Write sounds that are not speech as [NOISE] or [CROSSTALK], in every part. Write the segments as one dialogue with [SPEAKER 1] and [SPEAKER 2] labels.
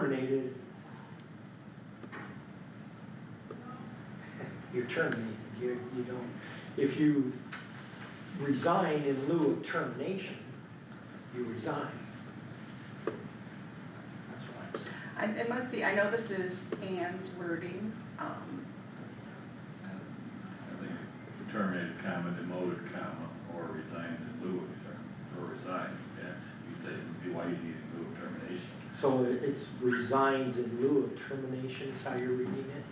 [SPEAKER 1] terminated. You're terminated, you, you don't, if you resign in lieu of termination, you resign. That's what I'm saying.
[SPEAKER 2] I, it must be, I know this is Anne's wording, um,
[SPEAKER 3] I think terminated comma, demoted comma, or resigns in lieu of, term- or resigns, yeah, you'd say, it'd be why you need in lieu of termination.
[SPEAKER 1] So it's resigns in lieu of termination is how you're reading it?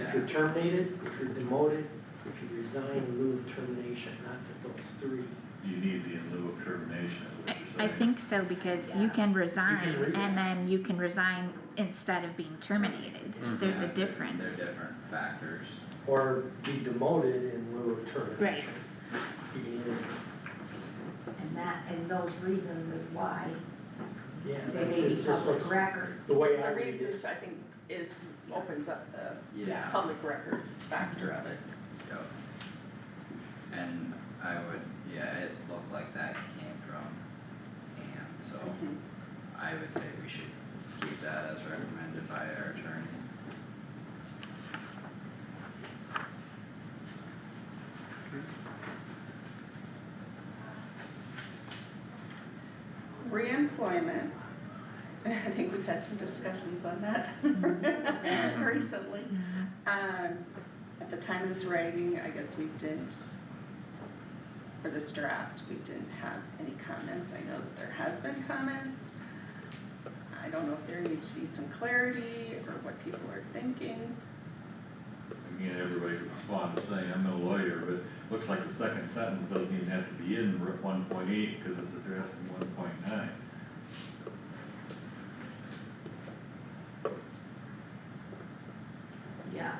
[SPEAKER 1] If you're terminated, if you're demoted, if you resign in lieu of termination, not that those three.
[SPEAKER 3] You need the in lieu of termination, is
[SPEAKER 4] I,
[SPEAKER 3] what you're
[SPEAKER 4] I
[SPEAKER 3] saying.
[SPEAKER 4] think so, because you can
[SPEAKER 1] You can
[SPEAKER 4] resign
[SPEAKER 1] read it.
[SPEAKER 4] and then you can resign instead of being terminated.
[SPEAKER 1] Mm-hmm.
[SPEAKER 4] There's
[SPEAKER 5] Yeah,
[SPEAKER 4] a
[SPEAKER 5] they're-
[SPEAKER 4] difference.
[SPEAKER 5] They're different factors.
[SPEAKER 1] Or be demoted in lieu of termination.
[SPEAKER 4] Right.
[SPEAKER 1] You can either-
[SPEAKER 6] And that, and those reasons is why
[SPEAKER 1] Yeah,
[SPEAKER 6] they
[SPEAKER 1] it
[SPEAKER 6] may be
[SPEAKER 1] just- just
[SPEAKER 6] public
[SPEAKER 1] looks,
[SPEAKER 6] record.
[SPEAKER 1] the way I
[SPEAKER 2] the
[SPEAKER 1] read it,
[SPEAKER 2] reasons, I think, is, opens up the
[SPEAKER 5] Yeah.
[SPEAKER 2] public record factor of it.
[SPEAKER 5] Yep. And I would, yeah, it looked like that came from Anne, so
[SPEAKER 2] Mhm.
[SPEAKER 4] Mm-hmm.
[SPEAKER 5] I would say we should keep that as recommended by our attorney.
[SPEAKER 2] Reemployment, [LAUGHS] I think we've had some discussions on that [LAUGHS] recently.
[SPEAKER 4] Mhm.
[SPEAKER 2] Um, at the time of this writing, I guess we didn't, for this draft, we didn't have any comments. I know that there has been comments. I don't know if there needs to be some clarity or what people are thinking.
[SPEAKER 3] Again, everybody could respond to saying, I'm no lawyer, but it looks like the second sentence doesn't even have to be in one point eight, cause it's addressed in one point nine.
[SPEAKER 6] Yeah.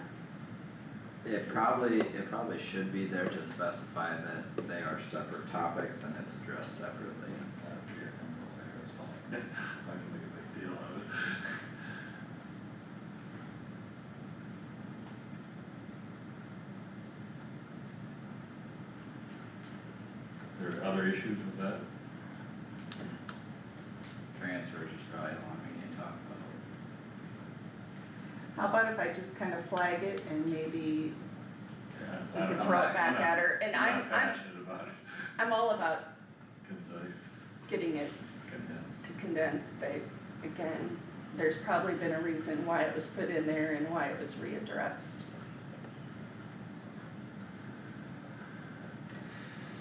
[SPEAKER 5] It probably, it probably should be there to specify that they are separate topics and it's addressed separately.
[SPEAKER 3] I don't care, I'm no lawyer, it's fine. I can make a big deal out of it. There are other issues with that?
[SPEAKER 5] Transfers is probably the one we need to talk about.
[SPEAKER 2] How about if I just kind of flag it and maybe
[SPEAKER 3] Yeah,
[SPEAKER 2] we
[SPEAKER 3] I don't-
[SPEAKER 2] can
[SPEAKER 3] I'm
[SPEAKER 2] throw
[SPEAKER 3] not-
[SPEAKER 2] it
[SPEAKER 3] I'm
[SPEAKER 2] back
[SPEAKER 3] not-
[SPEAKER 2] at her? And I,
[SPEAKER 3] I'm not
[SPEAKER 2] I'm,
[SPEAKER 3] passionate about it,
[SPEAKER 2] I'm all about
[SPEAKER 3] concise,
[SPEAKER 2] getting it
[SPEAKER 3] condensed.
[SPEAKER 2] to condense, but again, there's probably been a reason why it was put in there and why it was readdressed.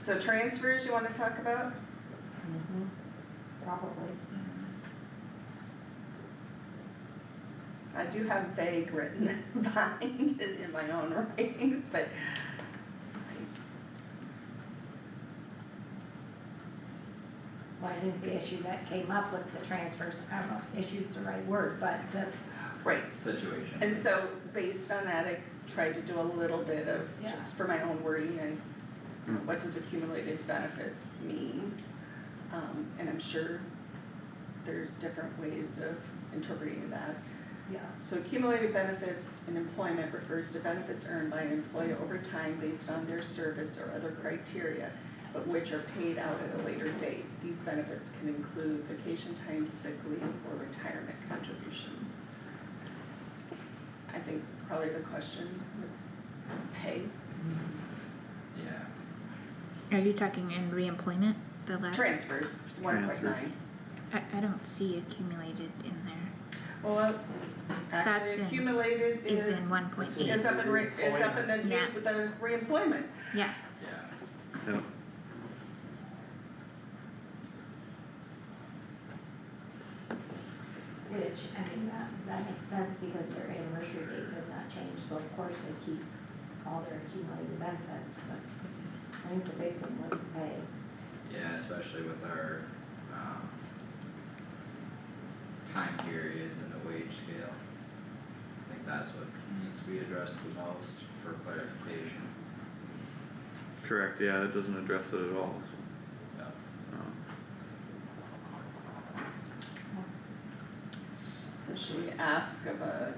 [SPEAKER 2] So transfers you wanna talk about?
[SPEAKER 6] Mm-hmm. Probably.
[SPEAKER 2] I do have vague written [LAUGHS] behind it in my own writings, but
[SPEAKER 6] Well, I think the issue that came up with the transfers, I don't know if issue's the right word, but the,
[SPEAKER 2] right,
[SPEAKER 5] Situation.
[SPEAKER 2] and so based on that, I tried to do a little bit of, just for my own wording and s-
[SPEAKER 5] Hmm.
[SPEAKER 2] what does accumulated benefits mean? Um, and I'm sure there's different ways of interpreting that.
[SPEAKER 6] yeah,
[SPEAKER 2] So accumulated benefits in employment refers to benefits earned by an employee over time based on their service or other criteria, but which are paid out at a later date. These benefits can include vacation time, sick leave, or retirement contributions. I think probably the question was pay,
[SPEAKER 5] Yeah.
[SPEAKER 4] Are you talking in reemployment, the last?
[SPEAKER 2] transfers, one point nine.
[SPEAKER 5] Transfers.
[SPEAKER 4] I, I don't see accumulated in there.
[SPEAKER 2] Well,
[SPEAKER 4] That's
[SPEAKER 2] actually
[SPEAKER 4] in-
[SPEAKER 2] accumulated
[SPEAKER 4] Is
[SPEAKER 2] is,
[SPEAKER 4] in one point eight,
[SPEAKER 2] is up in re, is up in the new,
[SPEAKER 4] Yeah.
[SPEAKER 2] with the reemployment.
[SPEAKER 4] yeah,
[SPEAKER 5] Yeah.
[SPEAKER 6] which, I mean, that, that makes sense because their anniversary date does not change, so of course they keep all their accumulated benefits, but I think the big thing was the pay.
[SPEAKER 5] Yeah, especially with our, um, time periods and the wage scale. I think that's what needs to be addressed the most for clarification.
[SPEAKER 7] Correct, yeah, it doesn't address it at all.
[SPEAKER 5] Yeah.
[SPEAKER 7] Um,
[SPEAKER 2] So should we ask of a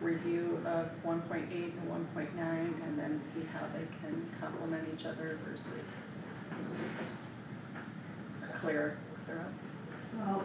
[SPEAKER 2] review of one point eight and one point nine and then see how they can complement each other versus clear, clear up?
[SPEAKER 6] Well,